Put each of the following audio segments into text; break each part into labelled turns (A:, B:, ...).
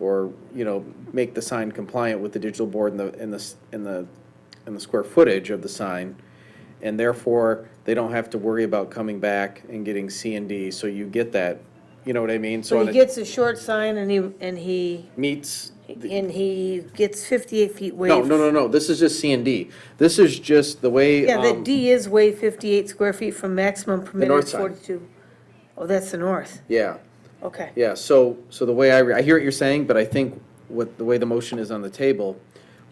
A: or, you know, make the sign compliant with the digital board and the, and the, s- and the, and the square footage of the sign. And therefore, they don't have to worry about coming back and getting C and D, so you get that, you know what I mean?
B: So he
A: it
B: gets a short sign and he, and he,
A: Meets. the-
B: and he gets 58 feet waived.
A: No, no, no, no, this is just C and D. This is just the way.
B: Yeah,
A: um,
B: that D is waived 58 square feet from maximum
A: north
B: permitted
A: side.
B: 42. Oh, that's the north,
A: Yeah.
B: okay.
A: Yeah, so, so the way I, re- I hear what you're saying, but I think what, the way the motion is on the table,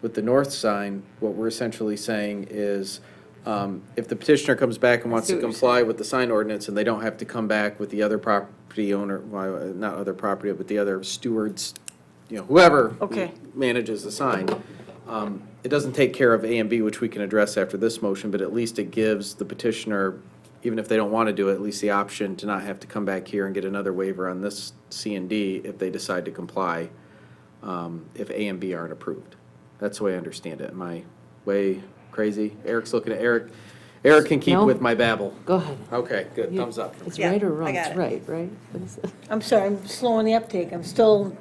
A: with the north sign, what we're essentially saying is, um, if the petitioner comes back and wants to comply with the sign ordinance, and they don't have to come back with the other property owner, well, uh, not other property, but the other stewards, you know, whoever
B: Okay.
A: manages the sign, um, it doesn't take care of A and B, which we can address after this motion, but at least it gives the petitioner, even if they don't want to do it, at least the option to not have to come back here and get another waiver on this C and D if they decide to comply, um, if A and B aren't approved. That's the way I understand it. Am I way crazy? Eric's looking at Eric. Eric can keep
C: No.
A: with my babble.
C: Go ahead.
A: Okay, good. Thumbs up.
C: It's
D: Yeah,
C: right or
D: I
C: wrong,
D: got
C: it's
D: it.
C: right, right? What is it?
B: I'm sorry, I'm slowing the uptake, I'm still,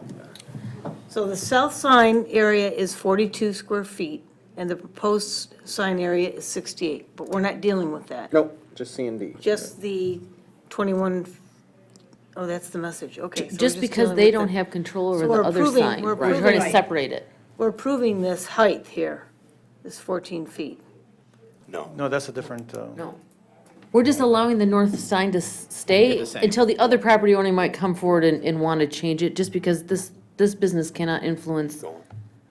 B: so the south sign area is 42 square feet, and the proposed sign area is 68, but we're not dealing with that.
A: Nope, just C and D.
B: Just the 21, oh, that's the message, okay. so we're
C: Just because
B: dealing
C: they
B: with
C: don't
B: the-
C: have control
B: So
C: over
B: we're
C: the other
B: approving-
C: sign.
B: we're
C: We're trying to
B: approving-
C: separate it.
B: We're approving this height here, this 14 feet.
E: No, that's a different, uh,
C: No. We're just allowing the north sign to s- stay
A: the same.
C: until the other property owner might come forward and, and want to change it, just because this, this business cannot influence,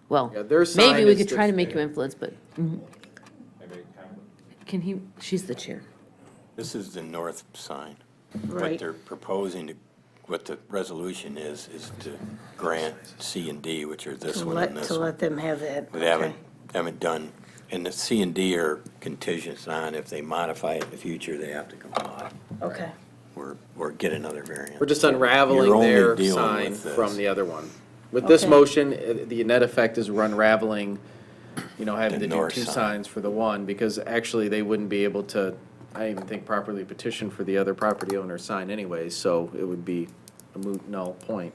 C: well,
A: Yeah, their
C: maybe
A: sign
C: we
A: is
C: could try
A: the-
C: to make you influence, but. mhm. Can he, she's the chair.
F: This is the north sign.
B: Right.
F: What they're proposing, to what the resolution is, is to grant C and D, which are this
B: To
F: one
B: let,
F: and this
B: to
F: one.
B: let them have that.
F: They haven't, haven't done, and the C and D are contingent on if they modify it in the future, they have to comply
B: Okay,
F: or, or get another variant.
A: We're just
F: You're
A: unraveling
F: only
A: their
F: dealing
A: sign
F: with this.
A: from the other one. With this
B: Okay.
A: motion, uh, the net effect is we're unraveling, you know, having
F: The
A: to do
F: north
A: two
F: sign.
A: signs for the one, because actually they wouldn't be able to, I don't even think properly petition for the other property owner's sign anyway, so it would be a moot null point.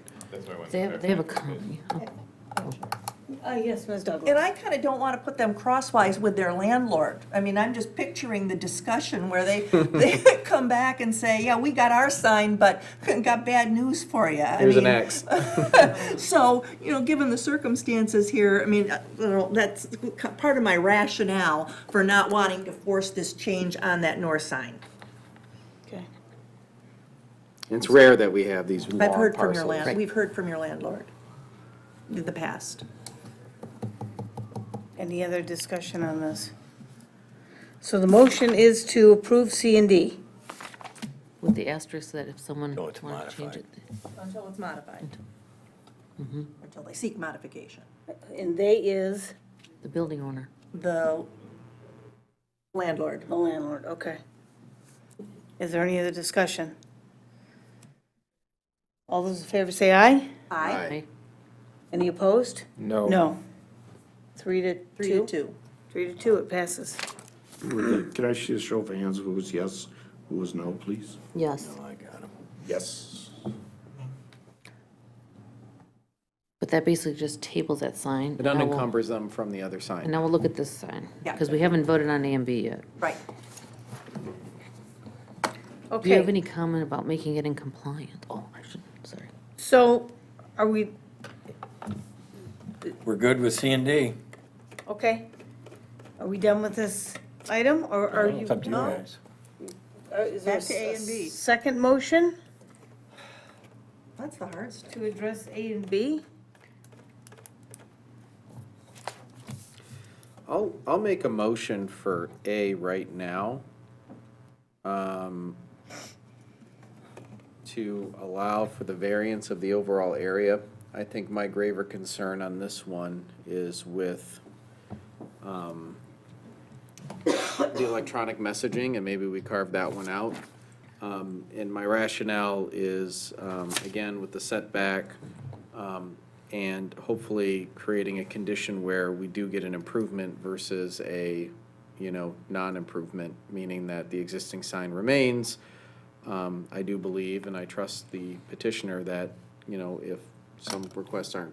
C: They have, they have a con, yeah.
B: uh, yes, Ms.
D: And
B: Douglas.
D: I kind of don't want to put them crosswise with their landlord. I mean, I'm just picturing the discussion where they, they come back and say, yeah, we got our sign, but got bad news for you.
A: Here's an X.
D: So, you know, given the circumstances here, I mean, uh, you know, that's part of my rationale for not wanting to force this change on that north sign.
B: Okay.
A: It's rare that we have these
D: I've
A: long
D: heard from your
A: parcels.
D: land, we've heard from your landlord in the past.
B: Any other discussion on this? So the motion is to approve C and D.
C: With the asterisk that if someone
A: Oh,
F: No, it's
C: wanted to change it.
F: modified.
D: Until it's modified. Until they seek modification.
B: And they is
C: The building owner.
D: The landlord.
B: the landlord, okay. Is there any other discussion? All those in favor say aye.
D: Aye.
C: right?
B: Any opposed?
A: No.
B: No. Three to two?
D: Three to two.
B: Three to two, it passes.
G: Can I see a show of hands, who was yes, who was no, please?
C: Yes,
F: Oh, I got 'em.
G: Yes.
C: but that basically just tables that sign.
A: It
C: and now we'll-
A: unencumbers them from the other
C: And
A: sign.
C: now we'll look at this sign,
D: Yeah.
C: because we haven't voted on A and B yet.
D: Right.
B: Okay.
C: Do you have any comment about making it in compliant? Oh, I should, sorry.
B: So are we,
F: We're good with C and D.
B: okay, are we done with this item, or are you?
F: It's up to you guys.
B: Uh, Is there
D: Back to A
B: a
D: and B.
B: s- second motion
D: That's the hard stuff.
B: to address A and B?
A: I'll, I'll make a motion for A right now. um, To allow for the variance of the overall area. I think my graver concern on this one is with um, the electronic messaging, and maybe we carve that one out. Um, And my rationale is, um, again, with the setback, um, and hopefully creating a condition where we do get an improvement versus a, you know, non-improvement, meaning that the existing sign remains. Um, I do believe, and I trust the petitioner, that, you know, if some requests aren't